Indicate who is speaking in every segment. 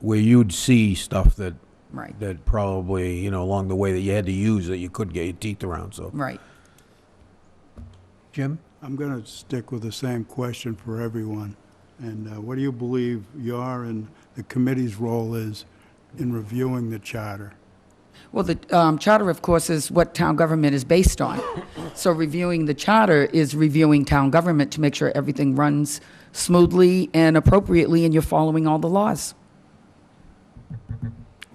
Speaker 1: where you'd see stuff that,
Speaker 2: Right,
Speaker 1: that probably, you know, along the way that you had to use that you couldn't get your teeth around, so.
Speaker 2: right.
Speaker 1: Jim?
Speaker 3: I'm going to stick with the same question for everyone. And uh, what do you believe your and the committee's role is in reviewing the charter?
Speaker 2: Well, the um, charter, of course, is what town government is based on. So reviewing the charter is reviewing town government to make sure everything runs smoothly and appropriately and you're following all the laws.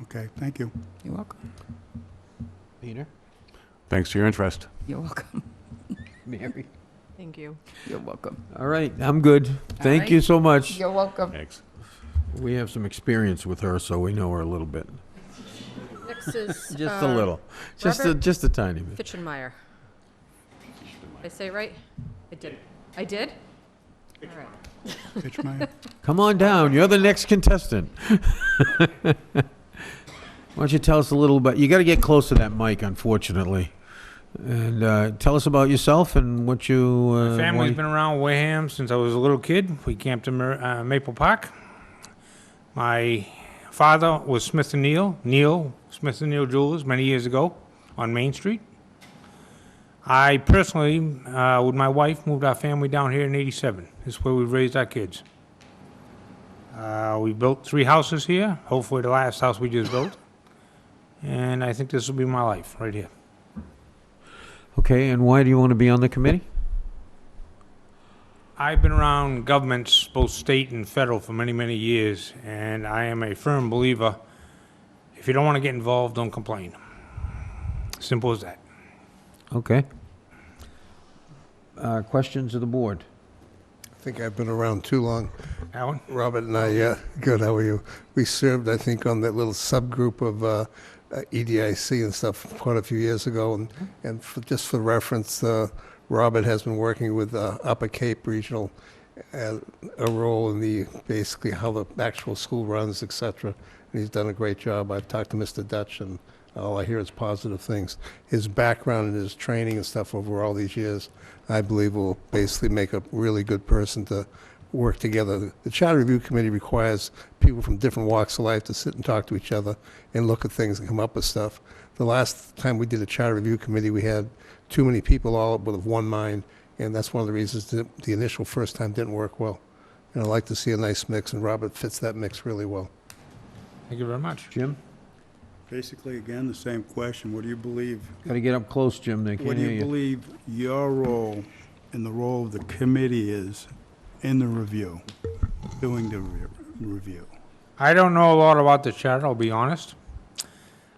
Speaker 3: Okay, thank you.
Speaker 2: You're welcome.
Speaker 1: Peter?
Speaker 4: Thanks for your interest.
Speaker 2: You're welcome.
Speaker 1: Mary?
Speaker 5: Thank you.
Speaker 2: You're welcome.
Speaker 1: All right, I'm good. Thank you
Speaker 2: right.
Speaker 1: so much.
Speaker 2: You're welcome.
Speaker 4: Thanks.
Speaker 1: We have some experience with her, so we know her a little bit.
Speaker 5: Next is.
Speaker 1: Just a
Speaker 5: uh,
Speaker 1: little. Just a,
Speaker 5: Robert?
Speaker 1: just a tiny bit.
Speaker 5: Fitchenmeyer. Did I say it right? I did. I did? All right.
Speaker 3: Fitchmeyer?
Speaker 1: Come on down. You're the next contestant. Why don't you tell us a little bit? You got to get close to that mic, unfortunately. And uh, tell us about yourself and what you. Uh,
Speaker 6: My
Speaker 1: why-
Speaker 6: family's been around Wareham since I was a little kid. We camped in Mer- uh, Maple Park. My father was Smith and Neil, Neil Smith and Neil Jewelers, many years ago on Main Street. I personally, uh, with my wife, moved our family down here in '87. This is where we raised our kids. Uh, we built three houses here. Hopefully, the last house we just built. And I think this will be my life right here.
Speaker 1: Okay, and why do you want to be on the committee?
Speaker 6: I've been around governments, both state and federal, for many, many years, and I am a firm believer if you don't want to get involved, don't complain. Simple as that.
Speaker 1: Okay. Uh, questions of the board?
Speaker 7: I think I've been around too long.
Speaker 6: Alan?
Speaker 7: Robert and I, uh, good, how are you? We served, I think, on that little subgroup of uh, uh, EDIC and stuff quite a few years ago. And, and for, just for reference, uh, Robert has been working with uh, Upper Cape Regional uh, a role in the basically how the actual school runs, et cetera. And he's done a great job. I've talked to Mr. Dutch, and all I hear is positive things. His background and his training and stuff over all these years, I believe, will basically make a really good person to work together. The Charter Review Committee requires people from different walks of life to sit and talk to each other and look at things and come up with stuff. The last time we did a Charter Review Committee, we had too many people all with one mind, and that's one of the reasons that the initial first time didn't work well. And I like to see a nice mix, and Robert fits that mix really well.
Speaker 6: Thank you very much.
Speaker 1: Jim?
Speaker 3: Basically, again, the same question. What do you believe,
Speaker 1: Got to get up close, Jim. They can't
Speaker 3: what do
Speaker 1: hear
Speaker 3: you believe your role and the role of the committee is in the review, doing the re- review?
Speaker 6: I don't know a lot about the charter, I'll be honest.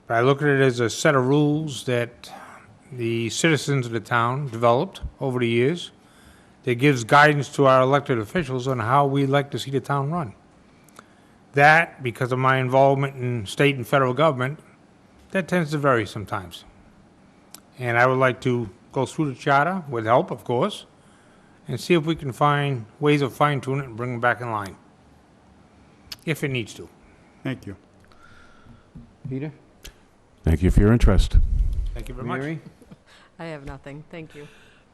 Speaker 6: But I look at it as a set of rules that the citizens of the town developed over the years that gives guidance to our elected officials on how we like to see the town run. That, because of my involvement in state and federal government, that tends to vary sometimes. And I would like to go through the charter, with help, of course, and see if we can find ways of fine tuning it and bring them back in line, if it needs to.
Speaker 3: Thank you.
Speaker 1: Peter?
Speaker 4: Thank you for your interest.
Speaker 6: Thank you very much.
Speaker 1: Mary?
Speaker 5: I have nothing. Thank you.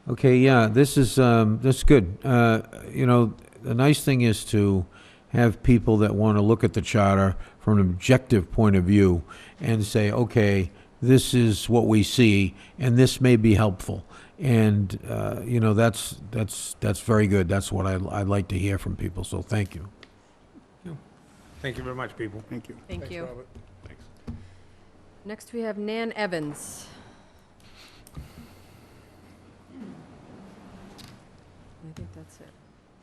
Speaker 1: Okay, yeah, this is, um, this is good. Uh, you know, the nice thing is to have people that want to look at the charter from an objective point of view and say, okay, this is what we see, and this may be helpful. And, uh, you know, that's, that's, that's very good. That's what I, I like to hear from people, so thank you.
Speaker 6: Thank you very much, people.
Speaker 3: Thank you.
Speaker 5: Thank you.
Speaker 7: Robert.
Speaker 5: Next, we have Nan Evans. I think that's it.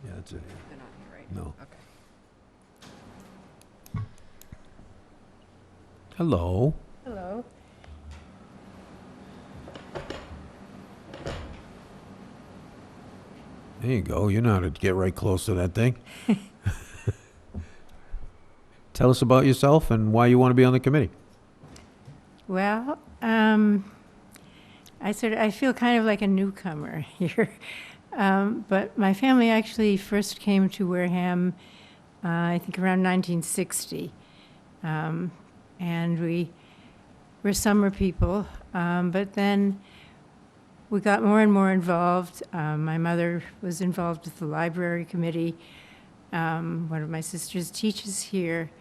Speaker 1: Yeah, that's it.
Speaker 5: They're not here, right?
Speaker 1: No.
Speaker 5: Okay.
Speaker 1: Hello.
Speaker 5: Hello.
Speaker 1: There you go. You know how to get right close to that thing. Tell us about yourself and why you want to be on the committee.
Speaker 8: Well, um, I sort of, I feel kind of like a newcomer here. Um, but my family actually first came to Wareham, uh, I think around 1960. Um, and we were summer people. Um, but then we got more and more involved. Um, my mother was involved with the library committee. Um, one of my sisters teaches here.